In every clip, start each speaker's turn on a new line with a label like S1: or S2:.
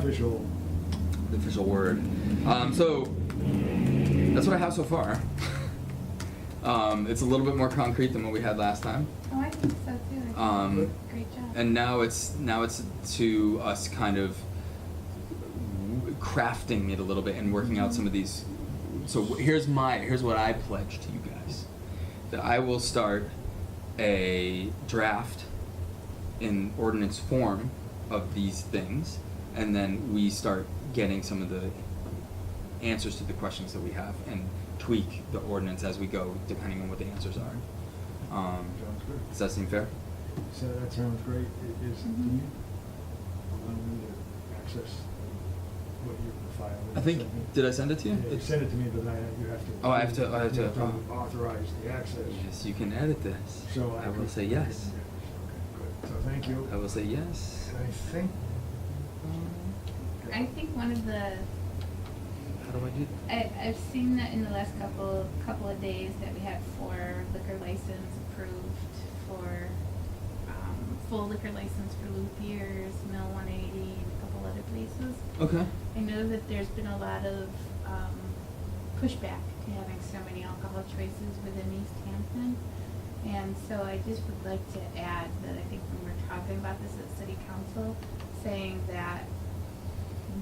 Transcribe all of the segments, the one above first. S1: official.
S2: the official word. Um, so that's what I have so far. um, it's a little bit more concrete than what we had last time,
S3: Oh, I think so too. I think
S2: Um,
S3: you did a Great job.
S2: and now it's now it's to us kind of crafting it a little bit and working out some of these. So here's my here's what I pledge to you guys that I will start a draft in ordinance form of these things, and then we start getting some of the answers to the questions that we have and tweak the ordinance as we go, depending on what the answers are. Um,
S1: Sounds good.
S2: does that seem fair?
S1: So that sounds great. It is, do
S3: Mhm.
S1: you allow me to access what you filed?
S2: I think- did I send it to you?
S1: Yeah, you sent it to me, but I, you have to.
S2: Oh, I have to- I have
S1: you
S2: to- uh,
S1: Authorize the access.
S2: Yes, you can edit this.
S1: So I.
S2: I will
S1: could-
S2: say yes.
S1: Okay, good. So thank you.
S2: I will say yes.
S1: I think.
S3: I think one of the
S2: How do I do
S3: I, I've seen that in the last couple couple of days that we had four liquor license approved for um, full liquor license for Luthiers, Mill 180, and a couple other places.
S2: that? Okay.
S3: I know that there's been a lot of um, pushback to having so many alcohol choices within East Hampton. And so I just would like to add that I think when we're talking about this at city council, saying that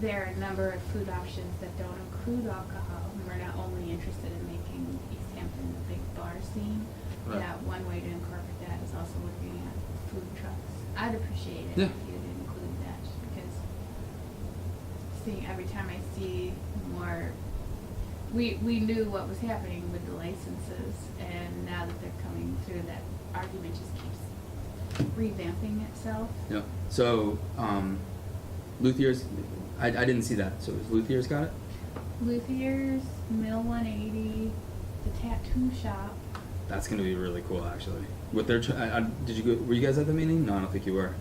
S3: there are a number of food options that don't include alcohol, and we're not only interested in making East Hampton a big bar scene,
S2: Right.
S3: that one way to incorporate that is also looking at food trucks. I'd appreciate
S2: Yeah.
S3: it if you'd include that, just because seeing every time I see more. We we knew what was happening with the licenses, and now that they're coming through, that argument just keeps revamping itself.
S2: Yeah. So, um, Luthier's, I, I didn't see that. So is Luthier's got it?
S3: Luthiers, Mill 180, the tattoo shop.
S2: That's gonna be really cool, actually. With their, tr- I, I, did you go? Were you guys at the meeting? No, I don't think you were.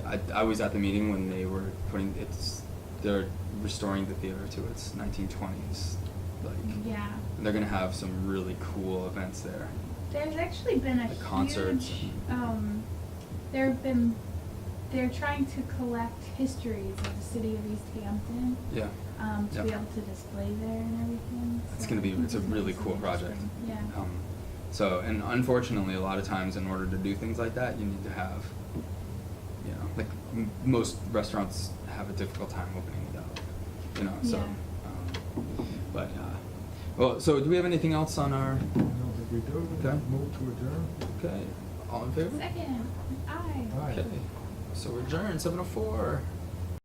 S3: Mm,
S2: I, I was at the meeting when they were putting it's. They're restoring the theater to its 1920s. Like
S3: yeah,
S2: they're gonna have some really cool events there.
S3: there's actually been a
S2: The concerts
S3: huge.
S2: and-
S3: Um, there have been. They're trying to collect histories of the city of East Hampton.
S2: Yeah.
S3: um, to be
S2: Yep.
S3: able to display there and everything.
S2: It's
S3: so
S2: gonna
S3: I
S2: be.
S3: think
S2: It's a
S3: gonna be
S2: really cool
S3: something
S2: project.
S3: interesting. Yeah.
S2: Um, so and unfortunately, a lot of times in order to do things like that, you need to have, you know, like m- most restaurants have a difficult time opening without, you know. So,
S3: Yeah.
S2: um, but uh, well, so do we have anything else on our?
S1: I don't think we do.
S2: Okay.
S1: Move to adjourn.
S2: Okay, all in favor?
S3: Second, I.
S1: Aye.
S2: Okay, so we're adjourned seven oh four.